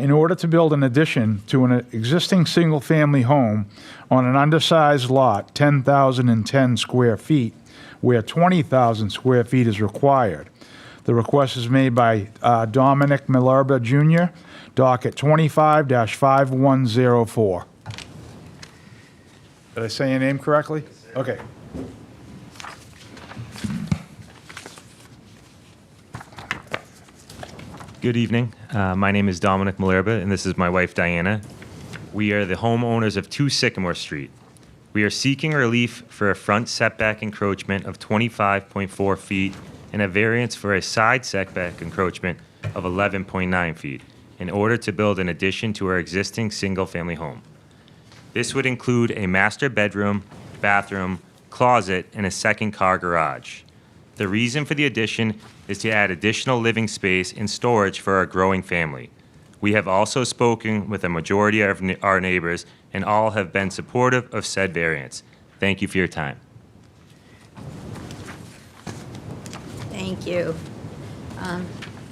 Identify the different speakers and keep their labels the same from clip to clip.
Speaker 1: in order to build an addition to an existing single-family home on an undersized lot, 10,010 square feet, where 20,000 square feet is required. The request is made by uh, Dominic Malarba Jr., docket 25-5104. Did I say your name correctly? Okay.
Speaker 2: Good evening. Uh, my name is Dominic Malerba, and this is my wife Diana. We are the homeowners of 2 Sycamore Street. We are seeking relief for a front setback encroachment of 25.4 feet and a variance for a side setback encroachment of 11.9 feet in order to build an addition to our existing single family home. This would include a master bedroom, bathroom, closet, and a second car garage. The reason for the addition is to add additional living space and storage for our growing family. We have also spoken with a majority of ne- our neighbors, and all have been supportive of said variance. Thank you for your time.
Speaker 3: Thank you. Um,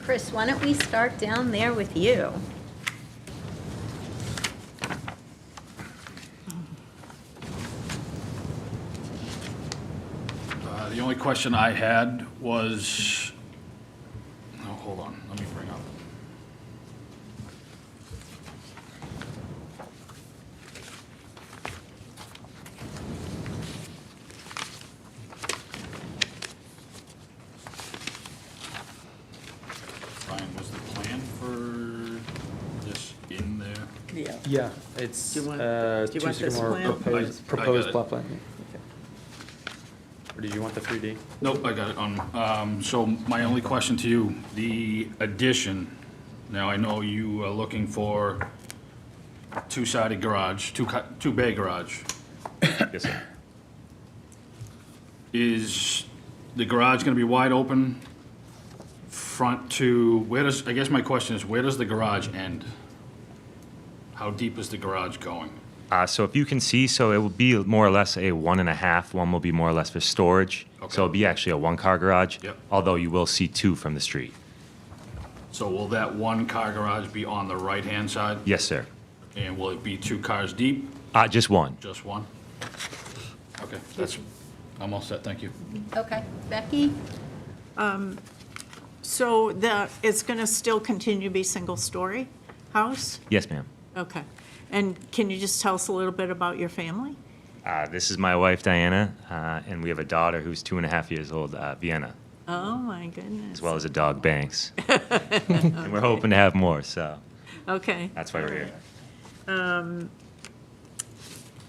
Speaker 3: Chris, why don't we start down there with you?
Speaker 4: Uh, The only question I had was, oh, hold on, let me bring up. Brian, was the plan for this in there?
Speaker 5: Yeah.
Speaker 6: Yeah, it's
Speaker 5: Do you want-
Speaker 6: uh,
Speaker 5: do you
Speaker 6: two
Speaker 5: want this
Speaker 6: Sycamore
Speaker 5: plan?
Speaker 4: I- I
Speaker 6: proposed,
Speaker 4: got
Speaker 6: proposed
Speaker 4: it.
Speaker 6: plot plan. yeah, okay. Or did you want the 3D?
Speaker 4: Nope, I got it on. Um, So my only question to you, the addition, now I know you are looking for two-sided garage, two, cu- two-bay garage.
Speaker 2: Yes, sir.
Speaker 4: Is the garage gonna be wide open front to, where does, I guess my question is, where does the garage end? How deep is the garage going?
Speaker 2: Uh, so if you can see, so it will be more or less a one and a half. One will be more or less for storage.
Speaker 4: Okay.
Speaker 2: So it'll be actually a one-car garage.
Speaker 4: Yep.
Speaker 2: Although you will see two from the street.
Speaker 4: So will that one-car garage be on the right-hand side?
Speaker 2: Yes, sir.
Speaker 4: And will it be two cars deep?
Speaker 2: Uh, just one.
Speaker 4: Just one? Okay, that's, I'm all set, thank you.
Speaker 3: Okay, Becky?
Speaker 5: So the, it's going to still continue to be single-story house?
Speaker 2: Yes, ma'am.
Speaker 5: Okay. And can you just tell us a little bit about your family?
Speaker 2: Uh, this is my wife Diana, uh, and we have a daughter who's two and a half years old, uh, Vienna,
Speaker 5: Oh, my goodness.
Speaker 2: as well as a dog Banks. and we're hoping to have more, so
Speaker 5: Okay.
Speaker 2: that's why we're here.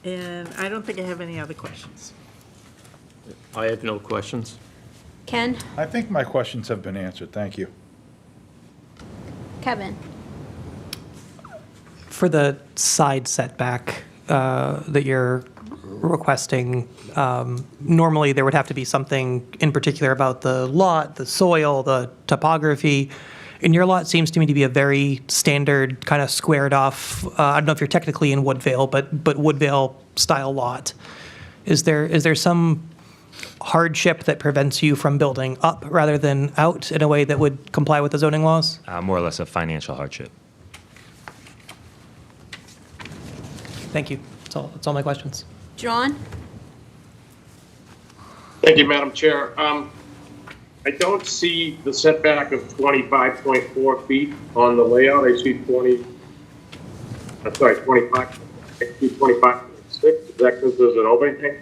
Speaker 5: And I don't think I have any other questions.
Speaker 7: I have no questions.
Speaker 3: Ken?
Speaker 1: I think my questions have been answered, thank you.
Speaker 3: Kevin?
Speaker 8: For the side setback uh, that you're requesting, um, normally there would have to be something in particular about the lot, the soil, the topography. And your lot seems to me to be a very standard, kind of squared off, uh, I don't know if you're technically in Woodvale, but, but Woodvale-style lot. Is there, is there some hardship that prevents you from building up rather than out in a way that would comply with the zoning laws?
Speaker 2: Uh, more or less a financial hardship.
Speaker 8: Thank you. That's all, that's all my questions.
Speaker 3: John?
Speaker 9: Thank you, Madam Chair. Um, I don't see the setback of 25.4 feet on the layout. I see 20, I'm sorry, 25, I see 25.6. Is that because there's an opening?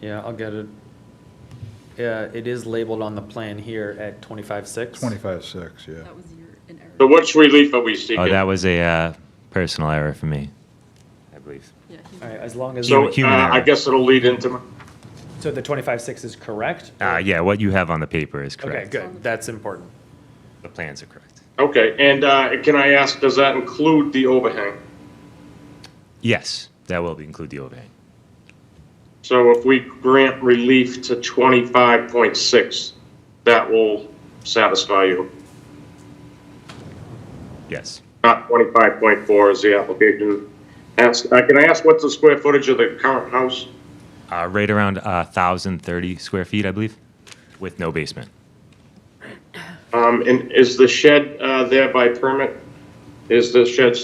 Speaker 6: Yeah, I'll get it. Yeah, it is labeled on the plan here at 25.6.
Speaker 1: 25-6, yeah.
Speaker 10: That was your, an error.
Speaker 9: So which relief are we seeking?
Speaker 2: Oh, that was a uh, personal error for me, I believe.
Speaker 10: Yeah, he-
Speaker 6: All right, as long as,
Speaker 9: So
Speaker 2: Human-
Speaker 9: uh,
Speaker 2: human error.
Speaker 9: I guess it'll lead into, my-
Speaker 6: so the 25.6 is correct?
Speaker 2: Uh,
Speaker 6: or-
Speaker 2: yeah, what you have on the paper is
Speaker 6: Okay,
Speaker 2: correct.
Speaker 6: good, that's important.
Speaker 2: The plans are correct.
Speaker 9: okay, and uh, can I ask, does that include the overhang?
Speaker 2: Yes, that will be- include the overhang.
Speaker 9: So if we grant relief to 25.6, that will satisfy you?
Speaker 2: Yes.
Speaker 9: not twenty-five point four is the application. Ask, uh, can I ask what's the square footage of the current house?
Speaker 2: Uh, right around uh, 1,030 square feet, I believe, with no basement.
Speaker 9: Um, and is the shed, uh, there by permit? is the shed